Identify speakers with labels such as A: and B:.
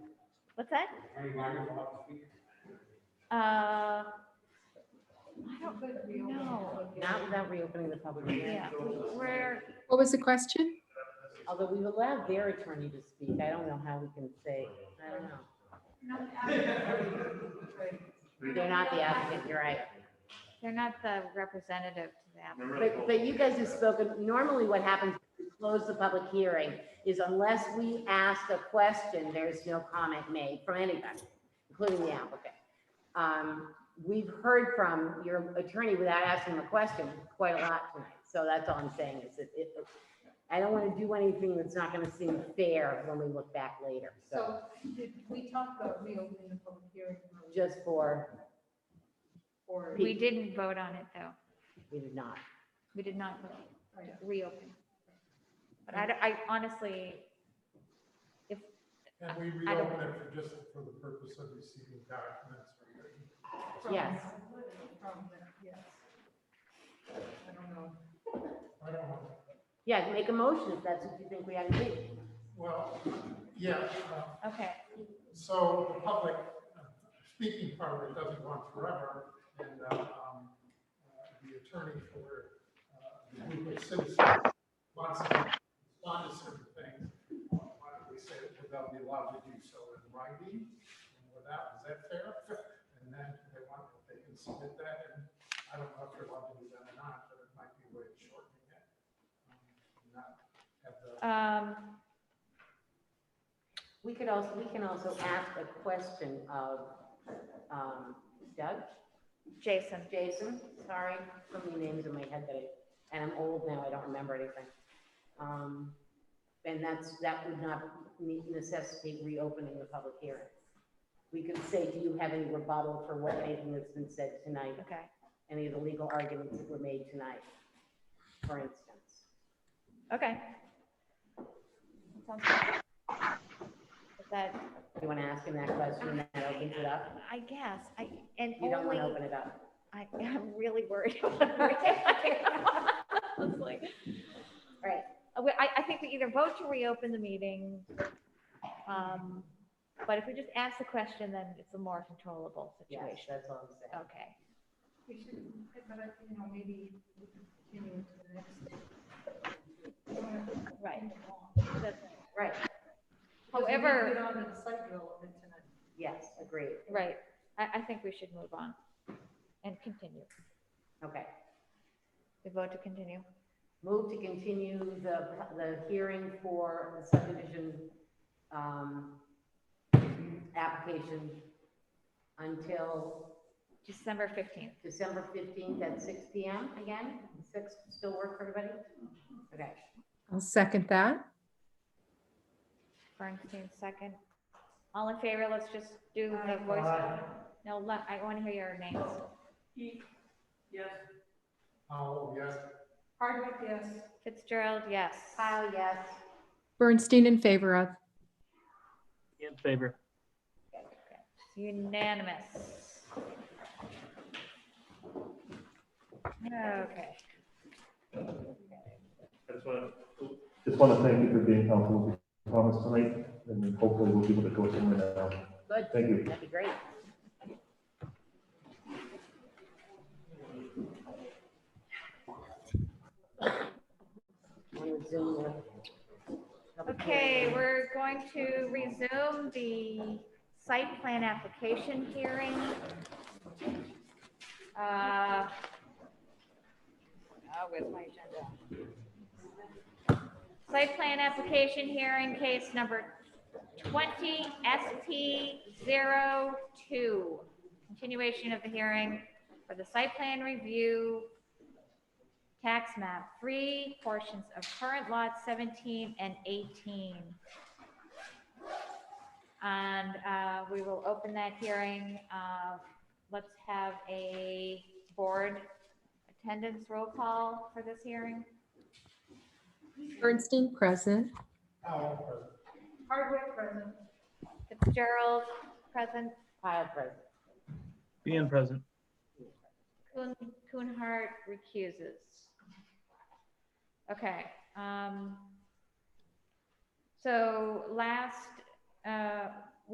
A: What's that?
B: Are you lining them up to speak?
A: Uh, I don't know.
C: Not without reopening the public hearing,
A: Yeah, where,
D: What was the question?
C: although we've allowed their attorney to speak, I don't know how we can say, I don't know. They're not the applicant, you're right.
A: they're not the representative to the applicant.
C: But, but you guys have spoken, normally what happens, when we close the public hearing, is unless we ask a question, there's no comment made from anybody, including the applicant. Um, we've heard from your attorney without asking the question quite a lot tonight, so that's all I'm saying is that it, I don't want to do anything that's not going to seem fair when we look back later, so
E: So did we talk about reopening the public hearing
C: just for,
E: or?
A: We didn't vote on it, though.
C: we did not.
A: We did not vote to reopen. But I, I honestly,
F: And we
A: I don't-
F: reopen it for just for the purpose of receiving documents. from the-
E: from-
C: Yes.
E: From, the- yes. I don't know.
F: I don't, know.
C: Yeah, make a motion if that's what you think we ought to do.
F: well, yeah, uh,
A: okay,
F: so the public, uh, speaking part of it doesn't go on forever. And uh, um, uh, the attorney for uh, the group of citizens wants to respond to certain things. Why don't we say that they'll be allowed to do so in writing and without, is that fair? And then if they want, they can submit that and I don't know if they're allowed to do that or not, but it might be a way of shortening it. um, and Not have the.
A: um,
C: We could also, we can also ask a question of um, Doug,
A: Jason,
C: Jason, sorry, so many names in my head that I, and I'm old now, I don't remember anything. Um, And that's, that would not ne- necessitate reopening the public hearing. We could say, do you have any rebuttal for what, anything that's been said tonight,
A: okay,
C: any of the legal arguments that were made tonight, for instance?
A: okay. Sounds good. Is That,
C: You want to ask him that question, and that opens it up?
A: I guess, I, and
C: You don't
A: only,
C: want to open it up?
A: I, I'm really worried. I was like, all right, Uh, we- I, I think we either vote to reopen the meeting, um, but if we just ask the question, then it's a more controllable
C: Yes,
A: situation.
C: that's all I'm saying.
A: Okay.
E: We should, but I, you know, maybe we can continue to the next. day.
A: Right.
C: Right,
E: Because we didn't
A: However-
E: Get on to the site development tonight.
C: yes, agreed.
A: Right, I, I think we should move on and continue.
C: Okay.
A: We vote to continue.
C: Move to continue the, the hearing for the subdivision, um, application until
A: December fifteenth.
C: December fifteenth at six P M again? Six still work for everybody? Okay,
D: I'll second that.
A: Bernstein, second. All in favor, let's just do the voice. No, let- I want to hear your names.
E: Heath, yes.
F: Oh, yes,
E: Hardwick, yes.
A: Fitzgerald, yes.
C: Kyle, yes.
D: Bernstein in favor of.
G: In favor.
A: Unanimous. Okay,
G: I just want
H: Just want to thank you for being helpful with comments tonight, and hopefully we'll be able to go somewhere now.
C: Good.
H: Thank you.
C: That'd be great. Wanna zoom in?
A: okay, we're going to resume the site plan application hearing. Uh, Oh, where's my agenda? Site plan application hearing case number twenty SP 2 Continuation of the hearing for the site plan review tax map three, portions of current lots seventeen and eighteen. And, uh, we will open that hearing, uh, let's have a board attendance roll call for this hearing.
D: Bernstein present.
F: I'll present.
E: Hardwick, present.
A: Fitzgerald, present,
C: Kyle, present.
G: Being present.
A: Kuhn, Kuhnhart recuses. Okay, um, so last, uh,